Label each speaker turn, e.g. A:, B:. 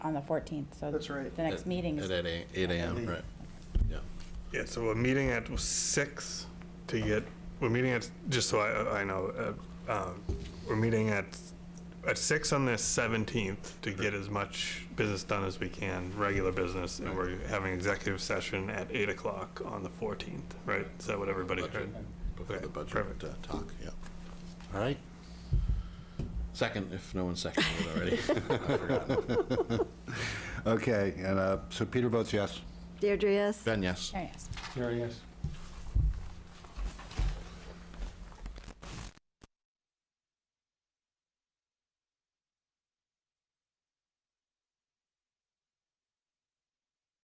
A: on the 14th, so.
B: That's right.
A: The next meeting
C: At
A: is,
C: eight a- 8 AM, right.
D: Yeah, so we're meeting at six to get, we're meeting at, just so I, I know, uh, um, we're meeting at, at six on the seventeenth to get as much business done as we can, regular business, and we're having executive session at eight o'clock on the fourteenth, right? Is that what everybody
C: Budget.
D: heard?
C: Before
D: Okay,
C: the budget
D: perfect.
C: uh, talk, yeah. All right. Second, if no one seconded it already. I've forgotten.
E: Okay, and uh, so Peter votes yes.
F: Deirdre, yes?
C: Ben, yes.
A: oh, yes.
G: Gary, yes.